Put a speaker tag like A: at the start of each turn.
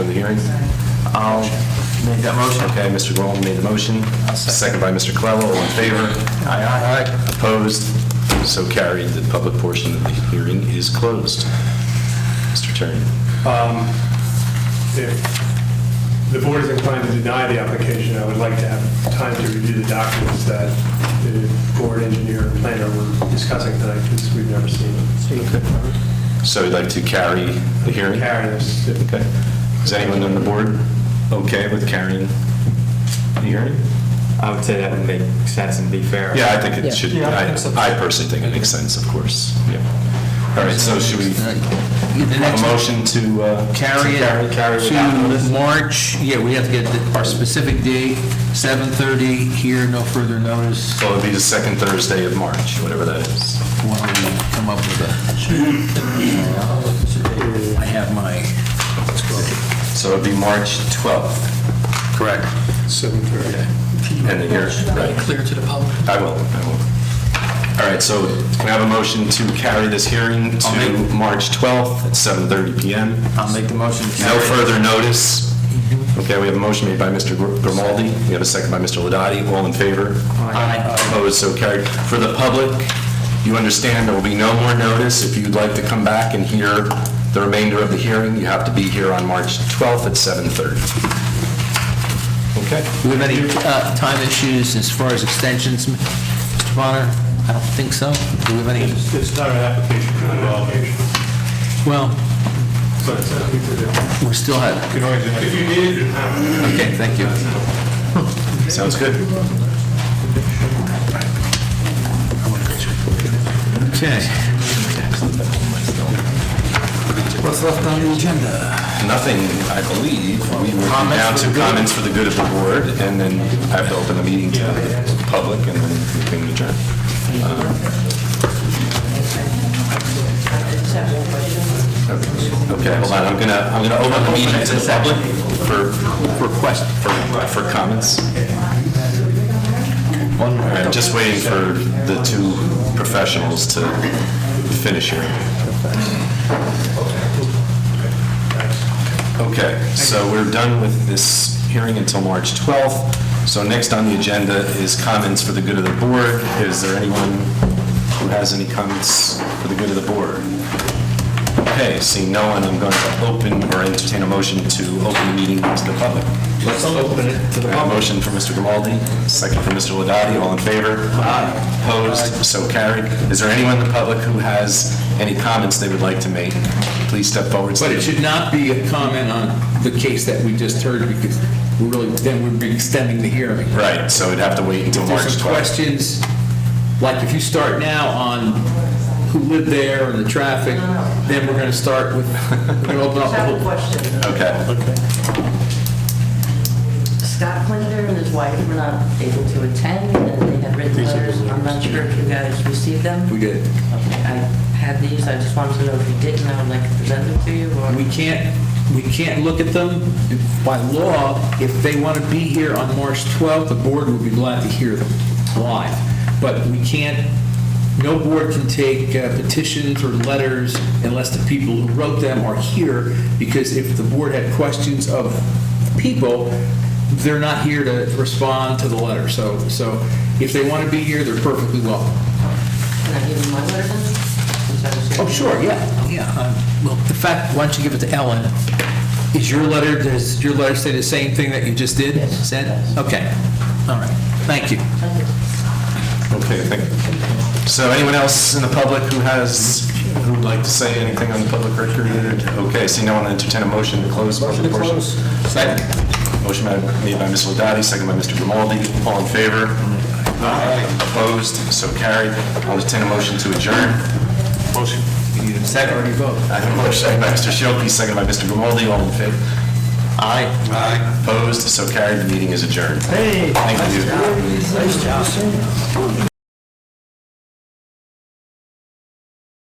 A: hearings? I'll make that motion. Okay, Mr. Groveland made the motion, second by Mr. Clello, all in favor? Aye, aye. Aye. Opposed? So carried, the public portion of the hearing is closed. Mr. Turner.
B: If the board is inclined to deny the application, I would like to have time to review the documents that the board engineer and planner were discussing tonight, because we've never seen them.
A: So you'd like to carry the hearing?
B: Karen, is-
A: Okay. Is anyone on the board okay with carrying the hearing?
C: I would say that would make sense and be fair.
A: Yeah, I think
D: Yeah.
A: it should, I I personally think it makes sense, of course. Yeah. All right, so should we,
D: The
A: a
D: next
A: motion to uh,
D: carry
A: carry, carry
D: it
A: without notice?
D: to March, yeah, we have to get the- our specific date, 7:30 here, no further notice,
A: So it'll be the second Thursday of March, whatever that is.
D: when we come up with a... I have my...
A: So it'll be March 12th. Correct. 7:30. And the hearing, right.
D: Clear to the public.
A: I will, I will. All right, so can I have a motion to carry this hearing to March 12th at 7:30 PM?
C: I'll make the motion. to
A: No
C: carry.
A: further notice. Okay, we have a motion made by Mr. Gr- Grimaldi, we have a second by Mr. Ladati, all in favor?
C: Aye.
A: Opposed, so carried. For the public, you understand there will be no more notice. If you'd like to come back and hear the remainder of the hearing, you have to be here on March 12th at 7:30. Okay?
D: Do we have any uh, time issues as far as extensions, Mr. Bonner? I don't think so. Do we have any,
B: It's it's not an application, it's an allocation.
D: well,
B: But it's uh, something to do.
D: we still have,
B: If you need it, you have it.
D: okay, thank you.
A: Sounds good.
D: Okay. What's left on the agenda?
A: Nothing, I believe. We will be down to comments for the good of the board, and then I have to open the meeting to the public, and then we can adjourn. Okay, hold on, I'm gonna, I'm gonna open the meeting to the public for, for quest, for, for comments. All right, just waiting for the two professionals to finish here. Okay, so we're done with this hearing until March 12th. So next on the agenda is comments for the good of the board. Is there anyone who has any comments for the good of the board? Okay, seeing no one, I'm going to open or entertain a motion to open the meeting to the public. Let's open it to the public. Motion for Mr. Grimaldi, second for Mr. Ladati, all in favor? Aye. Opposed, so carried. Is there anyone in the public who has any comments they would like to make? Please step forward.
E: But it should not be a comment on the case that we just heard, because we're really, then we'd be extending the hearing.
A: Right, so we'd have to wait until March
E: There's some
A: 12th.
E: questions, like if you start now on who lived there and the traffic, then we're gonna start with, we're gonna open up the
F: have a
E: whole...
F: question.
A: Okay,
F: Scott Klinger and his wife were not able to attend, and they had written letters. I'm not sure if you guys received them.
E: We did.
F: Okay, I had these, I just wanted to know if you did, and I would like to present them to you, or...
E: We can't, we can't look at them. By law, if they want to be here on March 12th, the board would be glad to hear them live. But we can't, no board can take uh, petitions or letters unless the people who wrote them are here, because if the board had questions of people, they're not here to respond to the letter. So, so if they want to be here, they're perfectly welcome.
F: Can I give you my letter then? Since I was here.
E: Oh, sure, yeah.
D: Yeah, uh, well, the fact, why don't you give it to Ellen?
E: Is your letter, does your letter say the same thing that you just did, said? Okay, all right, thank you.
F: Thank you.
A: okay, thank you. So anyone else in the public who has, who would like to say anything on the public record? Okay, seeing no one, I'll entertain a motion to close. Motion to close. Second. Motion by- made by Mr. Ladati, second by Mr. Grimaldi. All in favor? Aye. Opposed, so carried. I'll entertain a motion to adjourn. Motion. Second. Already vote. I have a motion by Mr. Shilkey, second by Mr. Grimaldi. All in favor? Aye. Aye. Opposed, so carried. The meeting is adjourned. Hey. Thank you.